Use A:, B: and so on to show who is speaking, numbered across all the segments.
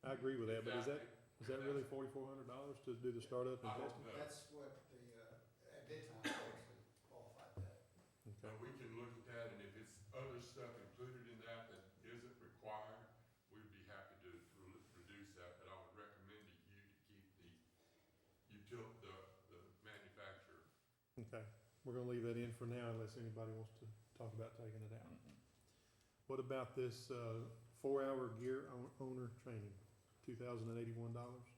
A: Um,
B: I agree with that, but is that,
A: Exactly.
B: is that really forty-four hundred dollars to do the startup and
A: I don't
B: testing?
A: know,
C: That's what the, uh, at that time, they actually qualified that.
B: Okay,
A: but we can look at that, and if it's other stuff included in that that isn't required, we'd be happy to re- reduce that, but I would recommend to you to keep the, util, the, the manufacturer.
B: okay. We're gonna leave that in for now unless anybody wants to talk about taking it out. What about this, uh, four-hour gear own- owner training, two thousand and eighty-one dollars?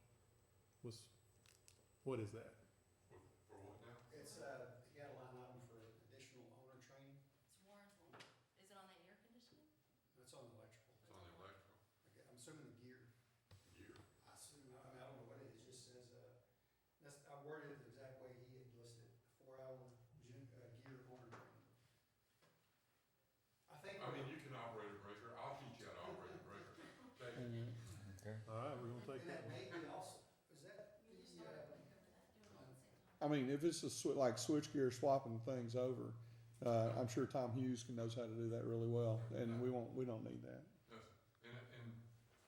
B: What's, what is that?
A: For, for what now?
C: It's, uh, you got a line item for additional owner training,
D: It's warranted. Is it on the air conditioning?
C: that's on electrical.
A: It's on the electrical
C: Okay, I'm assuming the gear,
A: gear.
C: I assume, I mean, I don't know what it is, it just says, uh, that's, I worded it the exact way he had listed, four hour gym, uh, gear owner training. I think.
A: I mean, you can operate a breaker, I'll teach you how to operate a breaker. Take it.
E: Mm-hmm.
B: All right, we're gonna take
C: And that
B: that one.
C: may be also, is that
D: You just
C: the,
D: started
C: uh,
D: going over that, doing it all at the same
E: I
D: time.
E: mean, if it's a swi- like switchgear swapping things over, uh, I'm sure Tom Hughes can knows how to do that really well, and we won't, we don't need that.
A: Yes, and, and,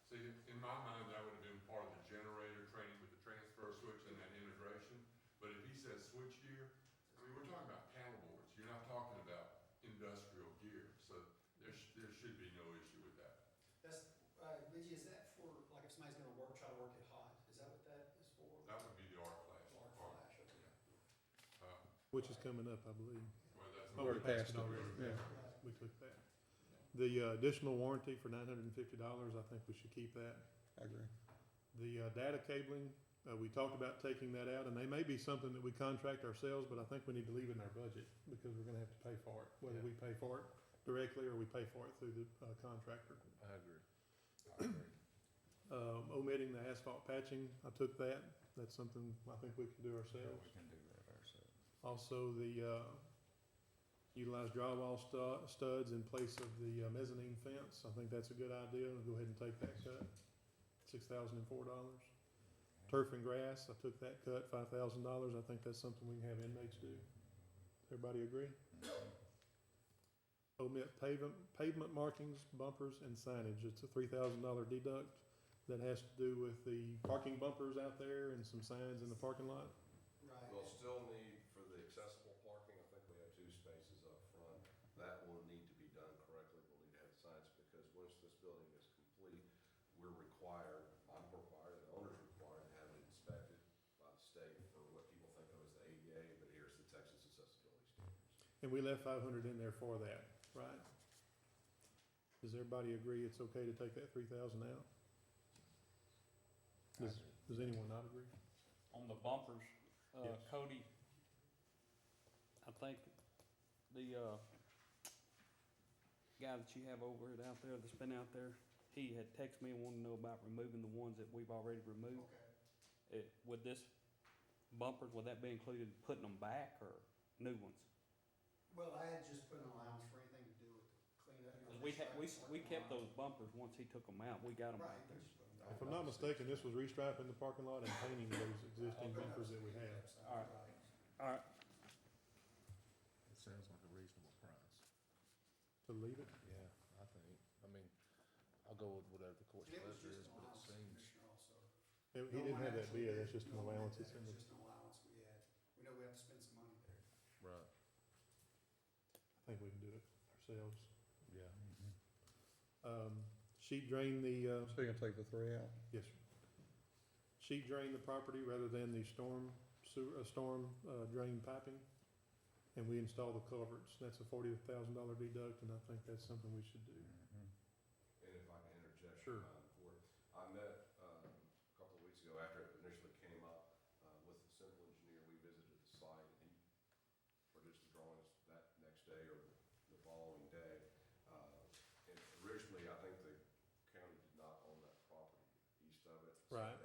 A: see, in my mind, that would have been part of the generator training with the transfer switch and that integration. But if he says switch gear, I mean, we're talking about paddle boards, you're not talking about industrial gear, so there sh- there should be no issue with that.
C: that's, uh, Luigi, is that for, like, if somebody's gonna work, try to work it hot, is that what that is for?
A: That would be the arc flash.
C: Or
A: part.
C: flash, okay.
A: Uh,
B: Which is coming up, I believe.
A: well, that's.
B: Oh, we passed it
A: Already
B: already.
A: passed.
C: Right.
B: We took that. The uh, additional warranty for nine hundred and fifty dollars, I think we should keep that.
E: I agree.
B: The uh, data cabling, uh, we talked about taking that out, and they may be something that we contract ourselves, but I think we need to leave it in our budget, because we're gonna have to pay for it, whether we pay for it directly or we pay for it through the uh, contractor.
F: I agree.
B: Um, Omitting the asphalt patching, I took that, that's something I think we can do ourselves.
F: can do that ourselves.
B: Also, the, uh, utilize drywall stu- studs in place of the uh, mezzanine fence, I think that's a good idea, I'll go ahead and take that cut, six thousand and four dollars. Turf and grass, I took that cut, five thousand dollars, I think that's something we can have inmates do. Everybody agree? Omit pavement, pavement markings, bumpers, and signage, it's a three thousand dollar deduct that has to do with the parking bumpers out there and some signs in the parking lot.
C: Right.
G: We'll still need for the accessible parking, I think we have two spaces up front. That will need to be done correctly. We'll need to have signs because once this building is complete, we're required, I'm required, the owner's required to have it inspected by the state for what people think of as the ADA, but here's the Texas accessibility standards.
B: And we left five hundred in there for that, right? Does everybody agree it's okay to take that three thousand out? Does, does anyone not agree?
H: On the bumpers, uh,
B: Yes.
H: Cody, I think the, uh, guy that you have over it out there that's been out there, he had texted me and wanted to know about removing the ones that we've already removed.
C: Okay.
H: It, Uh, would this bumpers, would that be included in putting them back or new ones?
C: Well, I had just put an allowance for anything to do with cleanup. you know,
H: 'Cause we had, we,
C: restriping,
H: we
C: parking
H: kept
C: lot.
H: those bumpers once he took them out, we got them
C: Right.
H: back there.
B: If I'm not mistaken, this was restriping the parking lot and painting those existing
C: Open
B: bumpers
C: up.
B: that we have.
H: All right. Alright,
F: It sounds like a reasonable price.
B: To leave it,
F: Yeah, I think, I mean, I'll go with whatever the court's
C: And it was
F: pleasure is,
C: just an
F: but it
C: allowance,
F: seems.
C: Commissioner, also.
B: he he
C: No
B: didn't
C: one
B: have that
C: actually
B: bid,
C: did.
B: that's just an
C: No one did
B: allowance,
C: that.
B: it's in
C: It's
B: the,
C: just an allowance we had. We know we have to spend some money there.
F: Right.
B: I think we can do it ourselves.
F: Yeah.
B: Um, sheet drain the, uh,
E: So you're gonna take the three out?
B: Yes, sir. Sheet drain the property rather than the storm sewer, uh, storm, uh, drain piping. And we install the culverts. That's a forty thousand dollar deduct, and I think that's something we should do.
G: And if I can interject.
B: Sure.
G: Madam Clerk, I met, um, a couple of weeks ago after it initially came up, uh, with the civil engineer, we visited the site, and he produced the drawings that next day or the following day. Uh, and originally, I think the county did not own that property east of it. so
B: Right.